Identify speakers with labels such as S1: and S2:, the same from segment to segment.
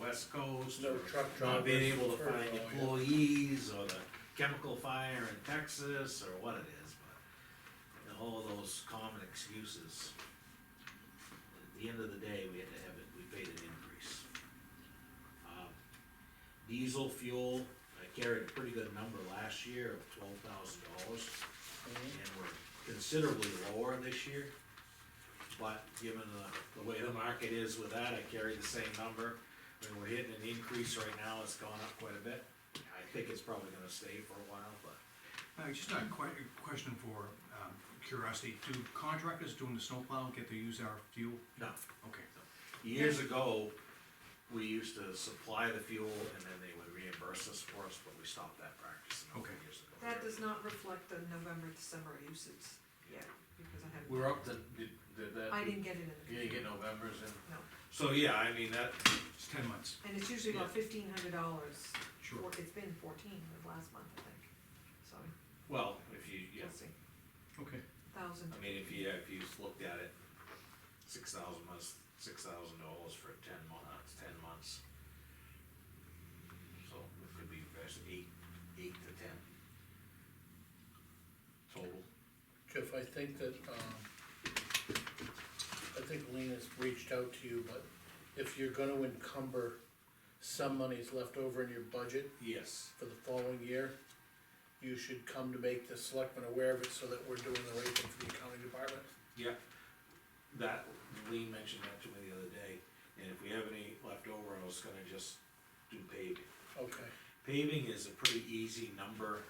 S1: West Coast,
S2: No
S1: or
S2: truck
S1: not being
S2: drivers
S1: able to
S2: prefer
S1: find
S2: it all, yeah.
S1: employees, or the chemical fire in Texas, or what it is, but the whole of those common excuses. At the end of the day, we had to have it, we paid an increase. Um, Diesel fuel, I carried a pretty good number last year of twelve thousand dollars
S2: Mm-hmm.
S1: and we're considerably lower this year. But given the, the way the market is with that, I carry the same number. I mean, we're hitting an increase right now, it's gone up quite a bit. I think it's probably gonna stay for a while, but
S3: Uh, just a que- question for, um, curiosity, do contractors doing the snowplow get to use our fuel?
S1: no.
S3: Okay,
S1: Years ago, we used to supply the fuel and then they would reimburse us for us, but we stopped that practice a number of
S3: Okay.
S1: years ago.
S4: That does not reflect the November, December usage yet, because I haven't,
S2: We're up to, did, did that?
S4: I didn't get it in
S2: You
S4: the,
S2: didn't get November's in?
S4: no.
S1: So, yeah, I mean, that,
S3: it's ten months,
S4: And it's usually about fifteen hundred dollars,
S3: sure.
S4: or it's been fourteen the last month, I think, so,
S1: well, if you, yeah,
S4: we'll see,
S3: Okay.
S4: thousand.
S1: I mean, if you, if you just looked at it, six thousand months, six thousand dollars for ten months, ten months. So it could be best eight, eight to ten. Total.
S2: Jeff, I think that, um, I think Lena's reached out to you, but if you're gonna encumber some monies left over in your budget
S1: Yes.
S2: for the following year, you should come to make the selectmen aware of it so that we're doing the right thing for the accounting department.
S1: Yeah. That, Lee mentioned that to me the other day, and if we have any left over, I was gonna just do paving.
S2: Okay,
S1: Paving is a pretty easy number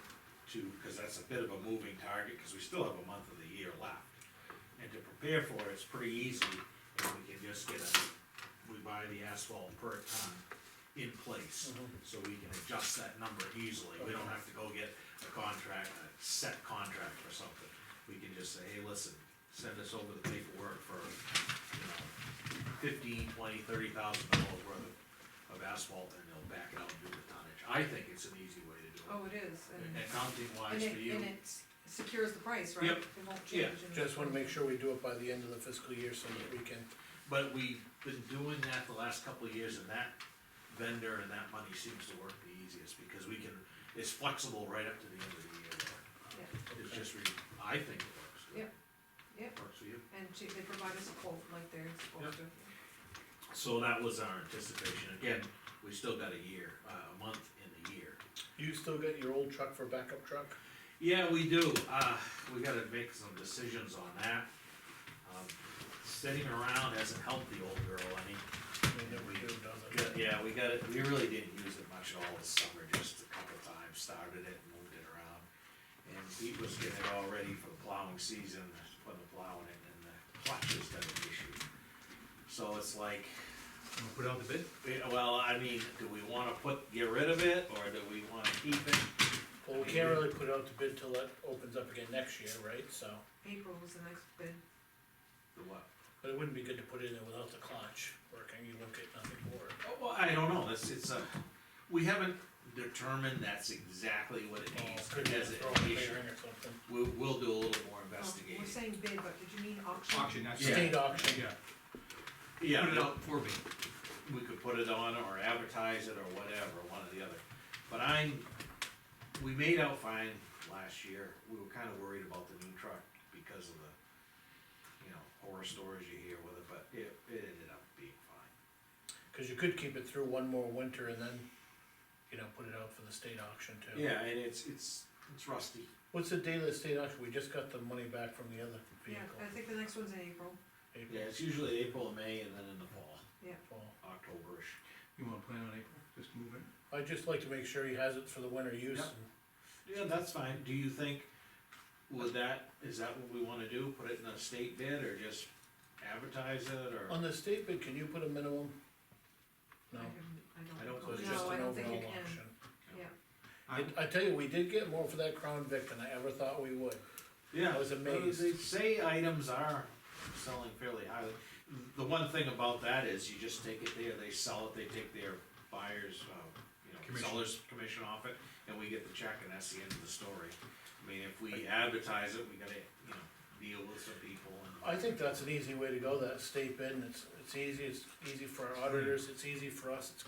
S1: to, cause that's a bit of a moving target, cause we still have a month of the year left. And to prepare for it, it's pretty easy, and we can just get a, we buy the asphalt per ton in place.
S2: Mhm.
S1: So we can adjust that number easily, we don't have to go get a contract, a set contract or something. We can just say, hey, listen, send us over the paperwork for, you know, fifteen, twenty, thirty thousand dollars worth of of asphalt and they'll back it out and do the tonnage. I think it's an easy way to do it.
S4: Oh, it is, and,
S1: Accounting
S4: and
S1: wise for
S4: it,
S1: you,
S4: and it secures the price, right?
S1: Yep.
S4: It won't
S1: Yeah,
S4: change. in the-
S2: just wanna make sure we do it by the end of the fiscal year so that we can,
S1: but we've been doing that the last couple of years and that vendor and that money seems to work the easiest because we can, it's flexible right up to the end of the year. It's
S2: Okay.
S1: just, re- I think it works. good.
S4: Yep.
S1: Works for you.
S4: And she, they provide us a quote like they're supposed to.
S1: So that was our anticipation. Again, we still got a year, uh, a month in the year.
S2: you still get your old truck for backup truck?
S1: Yeah, we do, uh, we gotta make some decisions on that. Um, Sitting around hasn't helped the old girl any.
S2: We never do, does it?
S1: Yeah, we got it, we really didn't use it much at all this summer, just a couple times, started it, moved it around. And Pete was getting it all ready for the plowing season, putting the plow in it, and the clutch has got an issue. So it's like,
S3: Wanna put out the bid?
S1: we- well, I mean, do we wanna put, get rid of it, or do we wanna keep it?
S2: Well, we can't really put out the bid till it opens up again next year, right, so,
S4: April was the next bid, Oh,
S1: The what?
S2: but it wouldn't be good to put it in there without the clutch working, you look at nothing for it.
S1: Oh, Well, I don't know, it's, it's a, we haven't determined that's exactly what it
S2: Oh,
S1: means,
S2: could be
S1: as
S2: throw a
S1: an issue.
S2: bearing or something.
S1: We'll, we'll do a little more
S4: Oh,
S1: investigating.
S4: we're saying bid, but did you mean auction?
S3: Auction, that's.
S1: Yeah.
S2: State auction.
S3: Yeah.
S1: Yeah,
S3: Put it
S1: no,
S3: out for bid.
S1: we could put it on or advertise it or whatever, one or the other. But I'm, we made out fine last year, we were kinda worried about the new truck because of the, you know, horror stories you hear with it, but it, it ended up being fine.
S2: Cause you could keep it through one more winter and then, you know, put it out for the state auction too.
S1: Yeah, and it's, it's, it's rusty.
S2: What's the date of the state auction? We just got the money back from the other
S4: Yeah,
S2: vehicle.
S4: I think the next one's in April,
S1: Yeah,
S2: April,
S1: it's usually April, May, and then in the fall,
S2: fall.
S1: Octoberish.
S3: You wanna plan on April, just move it?
S2: I'd just like to make sure he has it for the winter use.
S1: Yep. Yeah, that's fine, do you think, would that, is that what we wanna do, put it in a state bid, or just advertise it, or?
S2: On the state bid, can you put a minimum?
S4: I
S2: No,
S4: haven't-
S1: I
S4: I
S1: don't
S4: don't.
S2: so it's
S1: No,
S2: just
S4: I
S2: an
S4: don't think
S2: overall
S4: it can.
S2: auction.
S4: Yeah,
S3: I-
S2: I, I tell you, we did get more for that Crown Vic than I ever thought we would.
S1: Yeah,
S2: I was amazed.
S1: They say items are selling fairly highly, the one thing about that is, you just take it there, they sell it, they take their buyers, uh, you know,
S3: Commission.
S1: sellers' commission off it, and we get the check, and that's the end of the story. I mean, if we advertise it, we gotta, you know, deal with some people and.
S2: I think that's an easy way to go, that state bid, and it's, it's easy, it's easy for our auditors, it's easy for us, it's